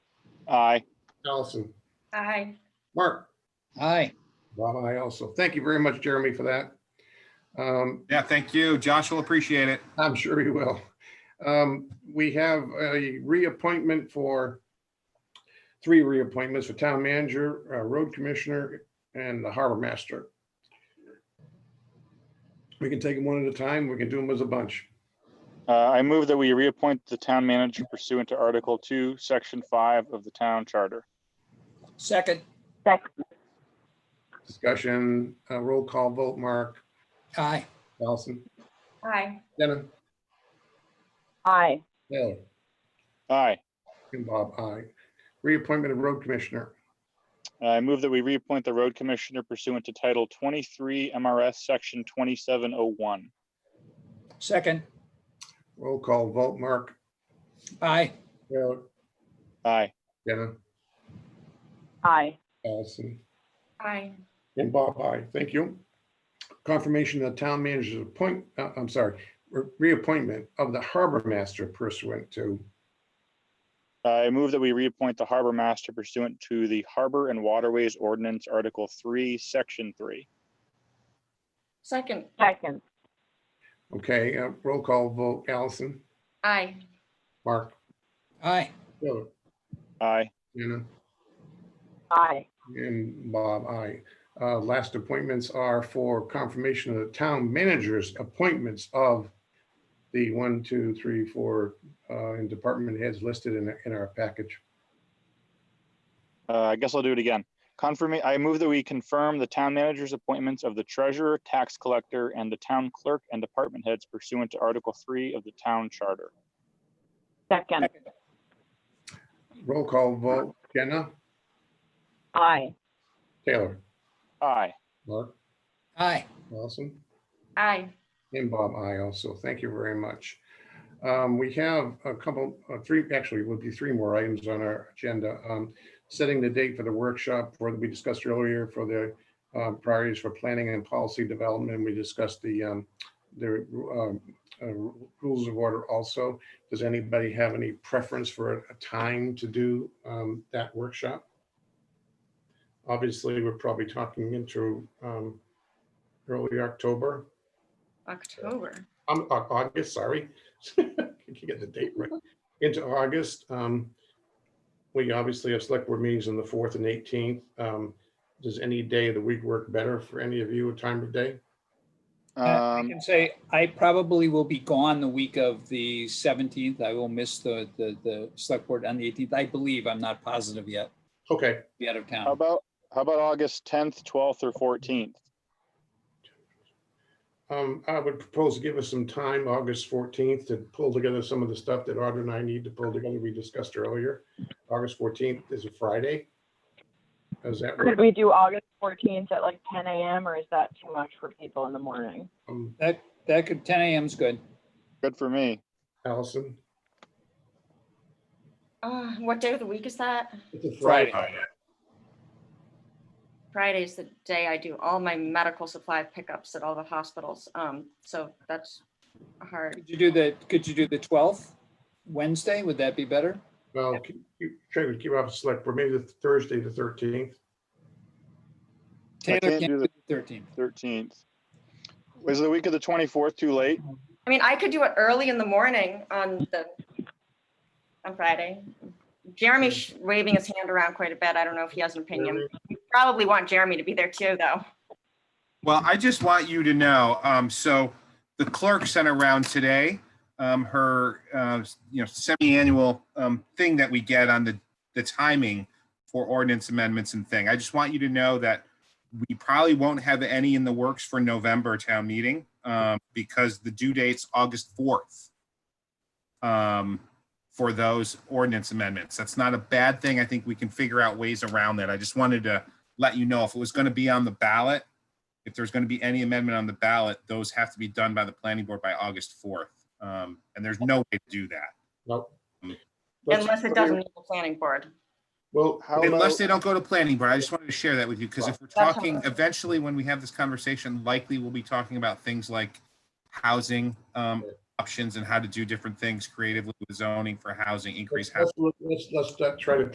Aye. Allison, Aye. Mark, Aye. Bob, I also. Thank you very much, Jeremy, for that. Um, Yeah, thank you. Josh will appreciate it. I'm sure you will. Um, We have a reappointment for, three reappointments for town manager, uh, road commissioner, and the harbor master. We can take them one at a time. We can do them as a bunch. Uh, I move that we reappoint the town manager pursuant to Article Two, Section Five of the Town Charter. Second. Discussion, uh, roll call vote, Mark, Aye. Allison, Aye. Denim, Aye. Taylor, Aye. and Bob, aye. Reappointment of road commissioner. I move that we reappoint the road commissioner pursuant to Title twenty-three MRS, Section twenty-seven oh one. Second. Roll call vote, Mark, Aye. Taylor, Aye. Denim, Aye. Allison, Aye. And Bob, aye. Thank you. Confirmation of the town manager's appoint, uh, I'm sorry, re- reappointment of the harbor master pursuant to, Uh, I move that we reappoint the harbor master pursuant to the Harbor and Waterways Ordinance, Article Three, Section Three. Second. Second. okay, uh, roll call vote, Allison, Aye. Mark, Aye. Taylor, Aye. Anna, Aye. and Bob, aye. Uh, Last appointments are for confirmation of the town manager's appointments of the one, two, three, four, uh, and department heads listed in, in our package. Uh, I guess I'll do it again. Confirm, I move that we confirm the town manager's appointments of the treasurer, tax collector, and the town clerk and department heads pursuant to Article Three of the Town Charter. Second. Roll call vote, Jenna, Aye. Taylor, Aye. Mark, Aye. Allison. Aye. And Bob, I also, thank you very much. Um, We have a couple, uh, three, actually, would be three more items on our agenda. Um, Setting the date for the workshop for, we discussed earlier for the uh, priorities for planning and policy development. We discussed the, um, the um, uh, rules of order also. Does anybody have any preference for a time to do um, that workshop? Obviously, we're probably talking into um, early October. October. I'm Au- August, sorry. Can't get the date right. Into August. Um, we obviously have select board meetings on the fourth and eighteenth. Um, does any day of the week work better for any of you, a time of day? I Um, can say I probably will be gone the week of the 17th. I will miss the, the, the select board on the 18th. I believe, I'm not positive yet, Okay, be out of how town. about, how about August tenth, twelfth, or fourteenth? um, I would propose to give us some time, August fourteenth, to pull together some of the stuff that Audra and I need to pull together. We discussed earlier. August fourteenth is a Friday. Does that Could work? we do August fourteenth at like ten AM or is that too much for people in the morning? Um, That could, 10 AM is good. Good for me. Allison? Uh, what day of the week is that? It's a Friday. Friday is the day I do all my medical supply pickups at all the hospitals. Um, so that's hard. Could you do the, could you do the 12th? Wednesday, would that be better? Well, keep- keep- try to keep off the select, board. maybe the Thursday, the thirteenth. I Taylor can't do can't do the- the 13th. Thirteenth. Was the week of the twenty-fourth too late? I mean, I could do it early in the morning on the, on Friday. Jeremy's sh- waving his hand around quite a bit. I don't know if he has an opinion. We Probably want Jeremy to be there too, though. Well, I just want you to know, um, so the clerk sent around today, um, her, uh, you know, semi-annual, um, thing that we get on the, the timing for ordinance amendments and thing. I just want you to know that we probably won't have any in the works for November town meeting, um, because the due date's August fourth. Um, for those ordinance amendments. That's not a bad thing. I think we can figure out ways around that. I just wanted to let you know if it was gonna be on the ballot, if there's going to be any amendment on the ballot, those have to be done by the planning board by August fourth. Um, and there's no way to do that Nope. Unless it doesn't need the planning board. Well, How unless about, they don't go to planning board. I just wanted to share that with you because if we're That's talking, eventually when we have this conversation, likely we'll be talking about things like housing, um, options and how to do different things creatively with zoning for housing, increase housing. Let's, let's, let's not try to